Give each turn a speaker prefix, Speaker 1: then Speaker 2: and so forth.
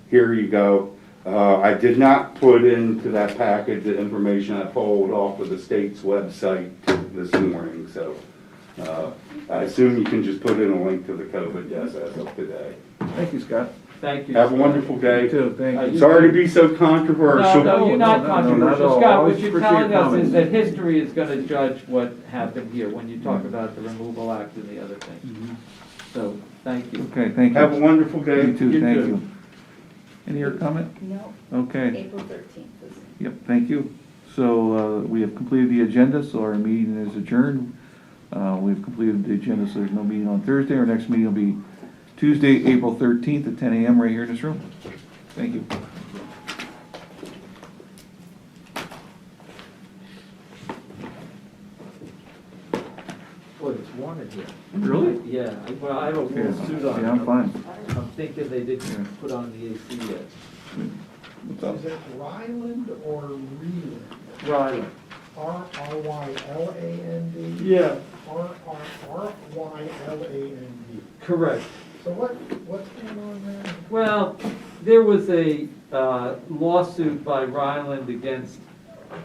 Speaker 1: here you go. Uh, I did not put into that package the information I pulled off of the state's website this morning, so. uh, I assume you can just put in a link to the COVID, yes, as of today.
Speaker 2: Thank you, Scott.
Speaker 3: Thank you.
Speaker 1: Have a wonderful day.
Speaker 2: You too, thank
Speaker 3: Uh,
Speaker 2: you.
Speaker 1: Sorry to be so
Speaker 3: No,
Speaker 1: controversial.
Speaker 3: no,
Speaker 2: No, no, no,
Speaker 3: you're not
Speaker 2: not at
Speaker 3: controversial,
Speaker 2: all.
Speaker 3: Scott,
Speaker 2: Always
Speaker 3: what you're
Speaker 2: appreciate
Speaker 3: telling us
Speaker 2: comments.
Speaker 3: is that history is gonna judge what happened here when you talk about the removal act and the other
Speaker 2: Mm-hmm.
Speaker 3: things. So, thank you.
Speaker 2: Okay, thank
Speaker 1: Have a
Speaker 2: you.
Speaker 1: wonderful day.
Speaker 2: You too,
Speaker 3: You
Speaker 2: thank
Speaker 3: too.
Speaker 2: you. Any other comment?
Speaker 4: No,
Speaker 2: Okay,
Speaker 4: April thirteenth is.
Speaker 2: yep, thank you. So, uh, we have completed the agenda, so our meeting is adjourned. Uh, we've completed the agenda, so there's no meeting on Thursday. Our next meeting will be Tuesday, April thirteenth at ten AM right here in this room. Thank you.
Speaker 3: Boy, it's wanted here.
Speaker 2: Really?
Speaker 3: Yeah, I- well, I have a
Speaker 2: Yeah,
Speaker 3: wool suit on.
Speaker 2: yeah, I'm fine.
Speaker 3: I'm thinking they
Speaker 2: Yeah.
Speaker 3: didn't put on the AC yet.
Speaker 2: What's up?
Speaker 5: Is it Ryland or Reland?
Speaker 3: Right.
Speaker 5: R R Y L A N D?
Speaker 3: Yeah,
Speaker 5: R R R Y L A N D.
Speaker 3: correct.
Speaker 5: So what, what's going on there?
Speaker 3: Well, there was a uh, lawsuit by Ryland against